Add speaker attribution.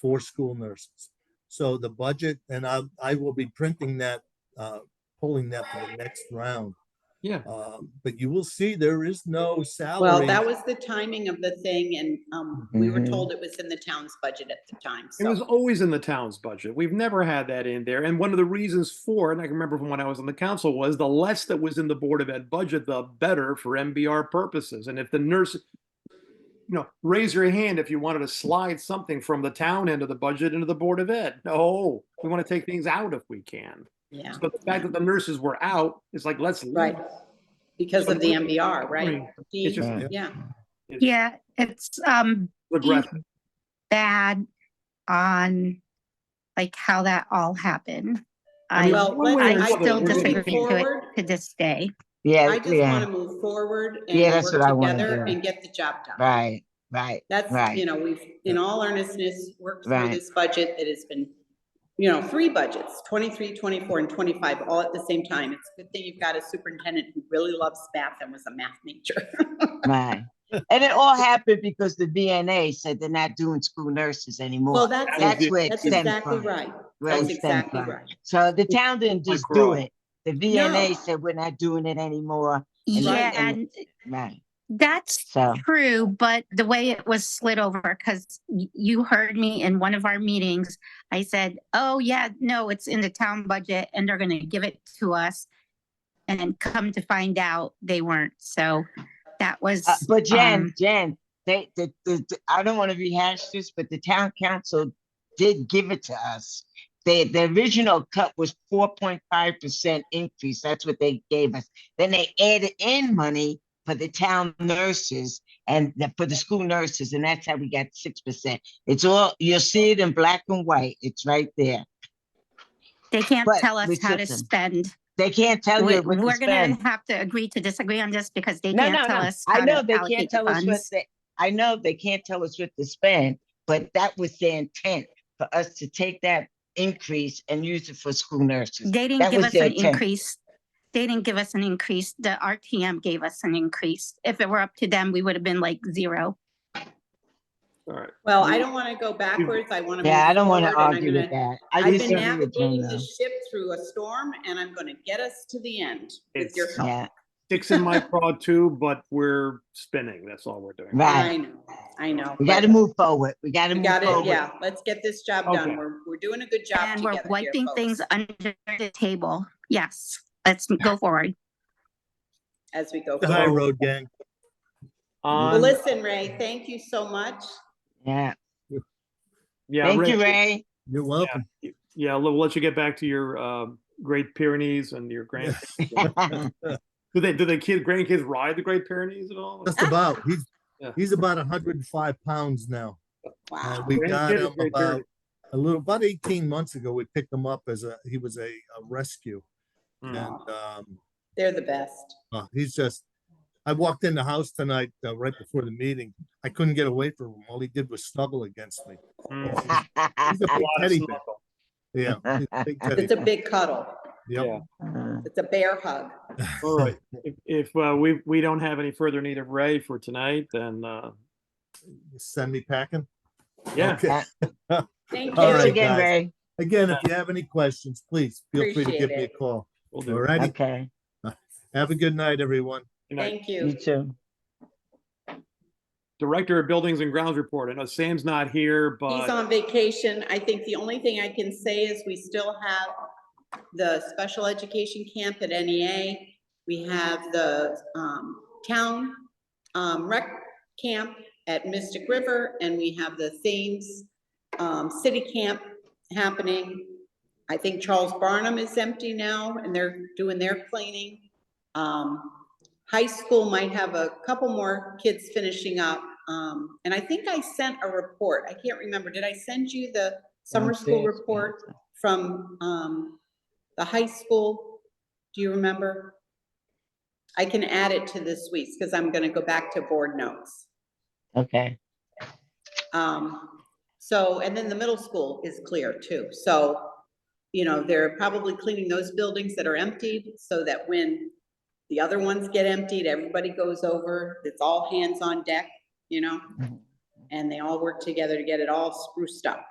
Speaker 1: for school nurses. So the budget, and I, I will be printing that, uh, pulling that for the next round.
Speaker 2: Yeah.
Speaker 1: Um, But you will see, there is no salary.
Speaker 3: Well, that was the timing of the thing and um, we were
Speaker 4: Mhm.
Speaker 3: told it was in the town's budget at the time.
Speaker 2: Mm-hmm. It was
Speaker 3: So
Speaker 2: always in the town's budget. We've never had that in there. And one of the reasons for, and I can remember from when I was on the council, was the less that was in the Board of Ed budget, the better for MBR purposes. And if the nurse, you know, raise your hand if you wanted to slide something from the town end of the budget into the Board of Ed. No, we want to take things out if we can.
Speaker 3: Yeah,
Speaker 2: So the fact that the nurses were out is like, let's. leave
Speaker 3: right.
Speaker 2: it.
Speaker 3: Because of the MBR, right?
Speaker 2: It's just
Speaker 4: Yeah.
Speaker 3: Yeah,
Speaker 5: Yeah, it's um
Speaker 2: regressive.
Speaker 5: bad on like how that all happened.
Speaker 2: I mean,
Speaker 5: I,
Speaker 3: well,
Speaker 2: one way or
Speaker 3: let's-
Speaker 5: I
Speaker 2: another,
Speaker 5: still
Speaker 2: we're gonna
Speaker 5: disagree
Speaker 3: moving
Speaker 5: to
Speaker 2: keep-
Speaker 5: it
Speaker 3: forward.
Speaker 5: to this day.
Speaker 4: Yeah,
Speaker 3: I just want
Speaker 4: yeah,
Speaker 3: to move forward
Speaker 4: Yeah,
Speaker 3: and
Speaker 4: that's
Speaker 3: work
Speaker 4: what I wanna
Speaker 3: together
Speaker 4: do.
Speaker 3: and get the job done.
Speaker 4: right, right.
Speaker 3: That's,
Speaker 4: right.
Speaker 3: you know, we've, in all earnestness, worked through
Speaker 4: Right.
Speaker 3: this budget that has been, you know, three budgets, 23, 24, and 25, all at the same time. It's a good thing you've got a superintendent who really loves math and was a math major.
Speaker 4: Right. And it all happened because the VNA said they're not doing school nurses
Speaker 3: Well,
Speaker 4: anymore.
Speaker 3: that's,
Speaker 4: That's where it
Speaker 3: that's
Speaker 4: stemmed
Speaker 3: exactly
Speaker 4: from.
Speaker 3: right.
Speaker 4: where it
Speaker 3: That's
Speaker 4: stemmed
Speaker 3: exactly
Speaker 4: from.
Speaker 3: right.
Speaker 4: So the town didn't just do
Speaker 2: Crowe.
Speaker 4: it. The VNA
Speaker 3: No.
Speaker 4: said, we're not doing it anymore. And
Speaker 5: Yeah,
Speaker 4: that's-
Speaker 5: and
Speaker 4: Right,
Speaker 5: that's
Speaker 4: so,
Speaker 5: true, but the way it was slid over, because you heard me in one of our meetings, I said, oh, yeah, no, it's in the town budget and they're gonna give it to us. And then come to find out they weren't, so that was.
Speaker 4: uh, but
Speaker 5: um,
Speaker 4: Jen, Jen, they, the, the, the- I don't want to rehash this, but the town council did give it to us. They, the original cut was four point five percent increase. That's what they gave us. Then they added in money for the town nurses and the- for the school nurses, and that's how we got six percent. It's all, you'll see it in black and white. It's right there.
Speaker 5: They can't
Speaker 4: but
Speaker 5: tell us
Speaker 4: with
Speaker 5: how to
Speaker 4: system.
Speaker 5: spend.
Speaker 4: They can't tell
Speaker 5: We-
Speaker 4: you what to
Speaker 5: We're gonna
Speaker 4: spend.
Speaker 5: have to agree to disagree on this because they
Speaker 4: No,
Speaker 5: can't
Speaker 4: no,
Speaker 5: tell
Speaker 4: no.
Speaker 5: us.
Speaker 4: I
Speaker 5: how to
Speaker 4: know they can't
Speaker 5: allocate
Speaker 4: tell us what
Speaker 5: funds.
Speaker 4: they, I know they can't tell us what to spend, but that was the intent for us to take that increase and use it for school nurses.
Speaker 5: They
Speaker 4: That
Speaker 5: didn't give
Speaker 4: was
Speaker 5: us
Speaker 4: their
Speaker 5: an
Speaker 4: intent.
Speaker 5: increase. They didn't give us an increase. The RTM gave us an increase. If it were up to them, we would have been like zero.
Speaker 2: All right.
Speaker 3: Well, I don't want to go backwards. I want to.
Speaker 4: Yeah, I don't want to argue with
Speaker 3: that.
Speaker 4: that. I
Speaker 3: I've been
Speaker 4: disagree with Jen,
Speaker 3: navigating
Speaker 4: though.
Speaker 3: this ship through a storm and I'm going to get us to the end with
Speaker 2: It's-
Speaker 3: your help.
Speaker 4: Yeah,
Speaker 2: Sticks in my craw too, but we're spinning. That's all we're doing.
Speaker 4: right.
Speaker 3: I know, I know.
Speaker 4: We gotta
Speaker 3: but
Speaker 4: move forward. We gotta
Speaker 3: we
Speaker 4: move
Speaker 3: got it,
Speaker 4: forward.
Speaker 3: yeah. Let's get this job
Speaker 2: Okay.
Speaker 3: done. We're, we're doing a good job
Speaker 5: And we're
Speaker 3: together here,
Speaker 5: wiping things
Speaker 3: folks,
Speaker 5: under the table. Yes, let's go forward.
Speaker 3: as we go.
Speaker 1: The high
Speaker 2: Oh.
Speaker 3: forward.
Speaker 1: road gang.
Speaker 3: Well,
Speaker 2: On,
Speaker 3: listen, Ray, thank you so much.
Speaker 4: Yeah.
Speaker 2: yeah,
Speaker 4: Thank
Speaker 2: Rick,
Speaker 4: you, Ray.
Speaker 1: You're welcome.
Speaker 2: Yeah, we'll we'll let you get back to your uh, Great Pyrenees and your grand. do they do the kid grandkids ride the Great Pyrenees at all?
Speaker 1: Just about, he's,
Speaker 2: Yeah.
Speaker 1: he's about hundred and five pounds now. Uh,
Speaker 3: Wow.
Speaker 1: We
Speaker 2: Grandkid
Speaker 1: got
Speaker 2: is
Speaker 1: him
Speaker 2: Great
Speaker 1: about
Speaker 2: Pyrenees.
Speaker 1: a little, about eighteen months ago, we picked him up as a, he was a, a rescue. And,
Speaker 2: Mm.
Speaker 1: um,
Speaker 3: They're the best.
Speaker 1: Uh, he's just, I walked in the house tonight, uh, right before the meeting. I couldn't get away from him. All he did was snuggle against me.
Speaker 2: Mm.
Speaker 1: He's a
Speaker 2: A
Speaker 1: big
Speaker 2: lot of
Speaker 1: teddy bear.
Speaker 2: snuggle.
Speaker 1: Yeah. he's a big teddy
Speaker 3: It's a
Speaker 1: bear.
Speaker 3: big cuddle.
Speaker 1: Yep.
Speaker 2: Yeah.
Speaker 3: It's a bear hug.
Speaker 2: All right. If, if uh, we we don't have any further need of Ray for tonight, then uh,
Speaker 1: Send me packing.
Speaker 2: yeah,
Speaker 1: Okay.
Speaker 3: Thank
Speaker 1: All
Speaker 4: Thanks
Speaker 1: right,
Speaker 3: you.
Speaker 4: again,
Speaker 1: guys.
Speaker 4: Ray.
Speaker 1: Again, if you have any questions, please feel free to give
Speaker 3: Appreciate
Speaker 1: me a
Speaker 3: it.
Speaker 1: call.
Speaker 2: we'll do.
Speaker 1: All righty.
Speaker 4: Okay,
Speaker 1: Have a good night, everyone.
Speaker 2: Good night.
Speaker 3: Thank
Speaker 4: you
Speaker 3: you.
Speaker 4: too.
Speaker 2: Director of Buildings and Grounds report. I know Sam's not here,
Speaker 3: He's
Speaker 2: but
Speaker 3: on vacation. I think the only thing I can say is we still have the special education camp at NEA. We have the um, town um, rec camp at Mystic River, and we have the Thames um, City Camp happening. I think Charles Barnum is empty now, and they're doing their cleaning. Um, High school might have a couple more kids finishing up. Um, and I think I sent a report. I can't remember. Did I send you the summer school
Speaker 4: Downstairs,
Speaker 3: report from, um, the high school? Do you remember? I can add it to this week's because I'm going to go back to board notes.
Speaker 4: Okay,
Speaker 3: Um, so, and then the middle school is clear too, so, you know, they're probably cleaning those buildings that are emptied so that when the other ones get emptied, everybody goes over, it's all hands on deck, you know?
Speaker 4: Mhm.
Speaker 3: And they all work together to get it all spruced up.